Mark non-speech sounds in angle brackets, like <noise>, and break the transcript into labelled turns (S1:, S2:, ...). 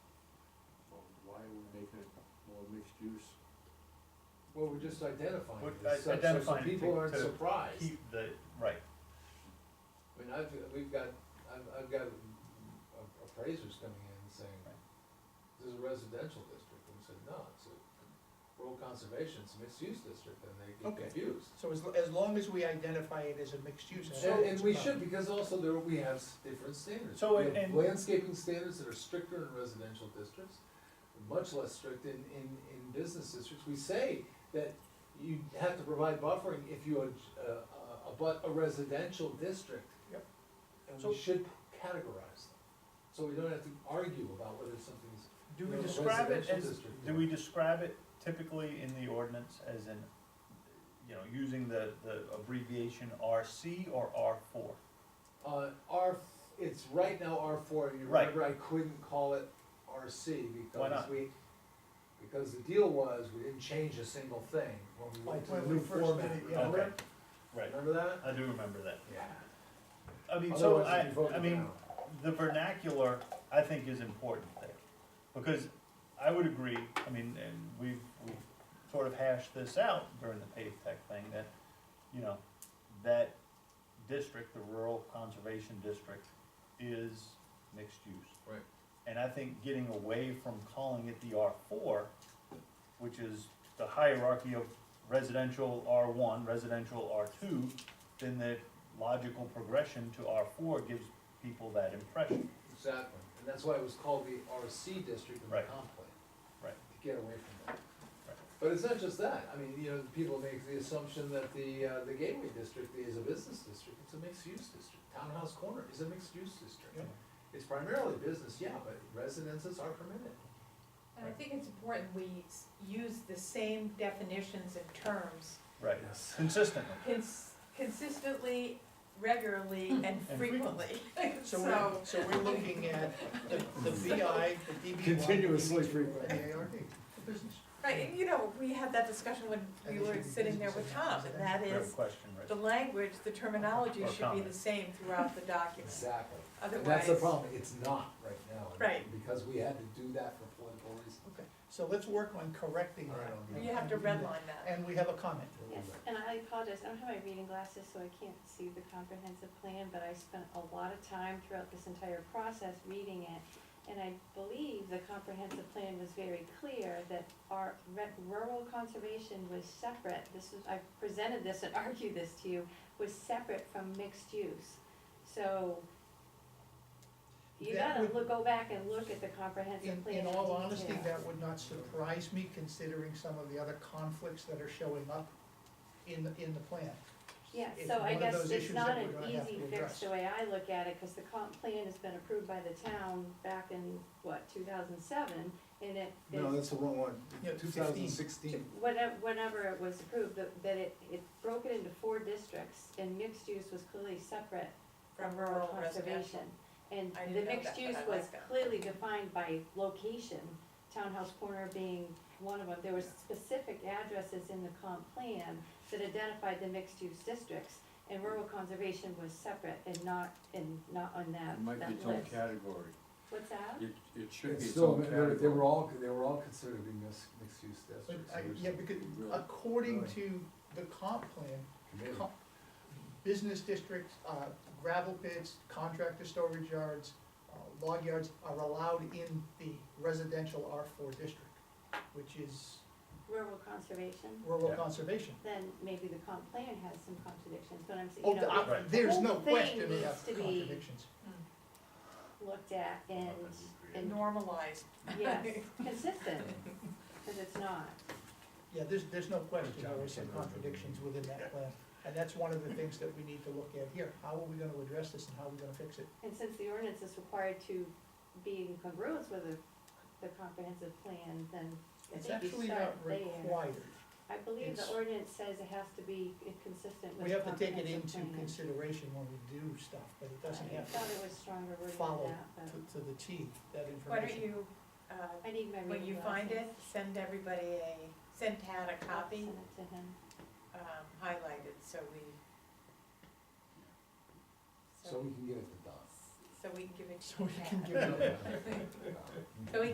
S1: okay, more mixed use.
S2: Well, we're just identifying
S3: We're
S2: it, as such, so- so
S3: identifying it
S2: people
S3: to-
S2: aren't
S3: to
S2: surprised.
S3: Keep the, right,
S2: I mean, I've, we've got, I've, I've got a- appraisers coming in and saying,
S3: Right.
S2: this is a residential district, and we said, no, it's a rural conservation, it's a mixed use district, and they get
S4: Okay.
S2: confused.
S4: So as, as long as we identify it as a mixed use.
S2: And,
S4: that's
S2: and we
S4: fine.
S2: should, because also there, we have s- different standards.
S3: So,
S2: We have
S3: and-
S2: Landscaping standards that are stricter in residential districts, much less strict in, in, in business districts. We say that you have to provide buffering if you, ad- uh, uh, abut a residential district.
S4: Yep.
S2: And
S4: So-
S2: we should categorize them, so we don't have to argue about whether something's.
S3: Do
S2: you
S3: we
S2: know, a
S3: describe it
S2: residential
S3: as,
S2: district.
S3: do we describe it typically in the ordinance as in, you know, using the, the abbreviation RC or R four?
S2: Uh, R, it's right now R four, and you
S3: Right.
S2: remember I couldn't call it RC
S3: Why
S2: because
S3: not?
S2: we, because the deal was, we didn't change a single thing when we went
S4: Like
S2: to the
S4: when
S2: new
S4: we first
S2: format,
S4: did it, yeah.
S2: remember?
S3: Right,
S2: Remember that?
S3: I do remember that.
S2: Yeah.
S3: I mean, so I,
S2: Otherwise, it'd be
S3: I mean,
S2: voted
S3: the vernacular, I think, is important there. Because I would agree, I mean, and we've, we've sort of hashed this out during the pave tech thing, that, you know, that district, the rural conservation district, is mixed use.
S2: Right.
S3: And I think getting away from calling it the R four, which is the hierarchy of residential R one, residential R two, then the logical progression to R four gives people that impression.
S2: Exactly, and that's why it was called the RC district in the
S3: Right.
S2: comp plan,
S3: Right.
S2: to get away from that.
S3: Right.
S2: But it's not just that, I mean, you know, people make the assumption that the, uh, the Gateway District is a business district, it's a mixed-use district. Townhouse Corner is a mixed-use district.
S4: Yep.
S2: It's primarily business, yeah, but residences are permitted.
S5: And I think it's important we s- use the same definitions and terms
S3: Right.
S2: Yes.
S3: Consistently.
S5: cons- consistently, regularly, and
S3: frequently.
S5: frequently.
S4: So we're, so we're looking at the, the VI, the DB1.
S1: Continuously frequent.
S4: The ARD, the business.
S5: <laughs> Right, and you know, we had that discussion when we were sitting there with Tom, and that
S3: Great
S5: is,
S3: question, right?
S5: the language, the terminology should be the same throughout the document.
S2: Exactly. And that's the
S5: Otherwise-
S2: problem, it's not right now.
S5: Right.
S2: Because we had to do that for political reasons.
S4: Okay, so let's work on correcting that.
S5: You have to redline that.
S4: And we have a comment.
S6: Yes, and I apologize, I don't have my reading glasses, so I can't see the comprehensive plan, but I spent a lot of time throughout this entire process reading it. And I believe the comprehensive plan was very clear that our re- rural conservation was separate. This was, I presented this and <laughs> argued this to you, was separate from mixed use. So you
S4: That
S6: gotta
S4: would-
S6: look, go back and look at the comprehensive
S4: In,
S6: plan.
S4: in all honesty,
S6: detail.
S4: that would not surprise me considering some of the other conflicts that are showing up in, the in the plan.
S6: Yeah,
S4: It's
S6: so
S4: one
S6: I
S4: of
S6: guess
S4: those
S6: it's
S4: issues that
S6: not
S4: we're
S6: an
S4: gonna have
S6: easy
S4: to address.
S6: fix the way I look at it, because the comp plan has been approved by the town back in, what, two thousand seven? And it
S1: No,
S6: is,
S1: that's the wrong one,
S4: Yeah,
S1: two thousand sixteen.
S6: whenever, whenever it was approved, that, that it, it broke it into four districts, and mixed use was clearly separate from
S5: From
S6: rural
S5: rural residential.
S6: conservation. And
S5: I
S6: the
S5: didn't know
S6: mixed
S5: that, but
S6: use
S5: I
S6: was
S5: like that.
S6: clearly defined by location, Townhouse Corner being one of them. There was specific addresses in the comp plan that identified the mixed-use districts, and rural conservation was separate and not, and not on
S1: It
S6: that,
S1: might be
S6: that
S1: its own
S6: list.
S1: category.
S6: What's that?
S1: It, it should be
S2: It's
S1: its
S2: still,
S1: own
S2: they're- they
S1: category.
S2: were all, they were all considered to be mis- mixed-use
S4: But
S2: districts.
S4: I-
S2: so we
S4: Yeah,
S2: should
S4: because
S1: be really-
S4: according
S2: really-
S4: to the comp plan,
S2: commit
S4: com- business districts, uh, gravel pits, contractor storage yards, uh, log yards are allowed in the residential R four district, which is
S6: Rural conservation?
S4: rural
S3: Yeah.
S4: conservation.
S6: Then maybe the comp plan has some contradictions, but I'm, saying,
S4: Oh,
S6: you
S4: the-
S6: know,
S4: I- there's
S6: whole
S4: no
S6: thing
S4: question we
S6: needs
S4: have
S6: to be-
S4: contradictions.
S6: looked at and,
S5: And
S6: and,
S5: normalized.
S6: yes, consistent, because it's not.
S4: Yeah, there's, there's no question there are
S2: Johnson.
S4: some contradictions within that plan. And that's one of the things that we need to look at here. How are we gonna address this and how are we gonna fix it?
S6: And since the ordinance is required to be in congruence with the, the comprehensive plan, then I
S4: It's
S6: think you
S4: actually
S6: start
S4: not
S6: there.
S4: required.
S6: I believe the
S4: It's-
S6: ordinance says it has to be consistent with
S4: We
S6: the
S4: have to take
S6: comprehensive
S4: it
S6: plan.
S4: into consideration when we do stuff, but it doesn't
S6: I
S4: have
S6: thought it
S4: to
S6: was stronger wording than
S4: follow
S6: that, but
S4: to, to the T, that information.
S5: Why don't you, uh,
S6: I need my reading
S5: when you find it,
S6: glasses.
S5: send everybody a, send Tad a
S6: I'll
S5: copy,
S6: Send it to him.
S5: um, highlighted, so we.
S2: So we can get it to Don.
S5: So we can give it
S4: So
S5: to
S4: we can
S5: Tad.
S2: <laughs>
S4: give it-
S2: Yeah.
S5: <laughs> So we